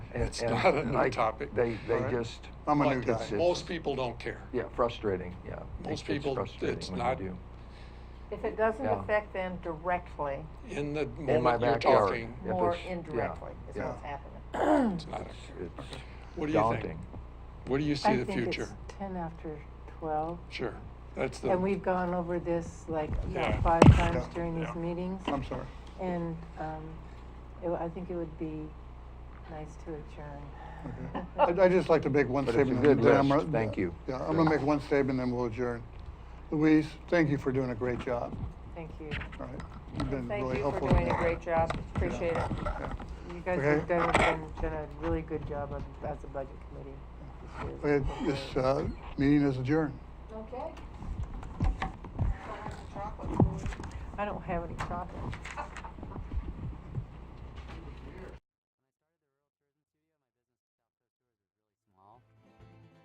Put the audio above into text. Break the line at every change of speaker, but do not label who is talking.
That's
and
not a
I-
new topic.
They, they
all right?
just.
I'm a
but
new guy.
it's-
uh, Most people don't care.
Yeah, frustrating, yeah. It
Most
gets
people,
frustrating
it's
when you
not-
do.
If it doesn't
Yeah.
affect them directly,
In the
In my
moment you're
backyard.
talking,
If
more
it's- yeah,
indirectly is
yeah.
what's happening.
it's not.
It's,
a-
it's
What do you think?
daunting.
What do you see the future?
I think it's ten after twelve,
Sure, that's the.
and we've gone over this like
Yeah.
about five times
Yeah.
during
Yeah.
these meetings.
I'm sorry.
And, um, it, I think it would be nice to adjourn.
Okay. I'd, I'd just like to make one
But it's a
statement.
good
and then I'm
list.
gonna-
Thank you.
Yeah, I'm gonna make one statement, then we'll adjourn. Louise, thank you for doing a great job.
Thank you.
All right. You've been
Thank
really
you for
helpful.
doing a great job, appreciate it.
Yeah.
You guys
Okay.
have done, done- done a really good job of, as a budget committee. this year.
Okay, This, uh, meeting is adjourned.
Okay.
I don't have any chocolate.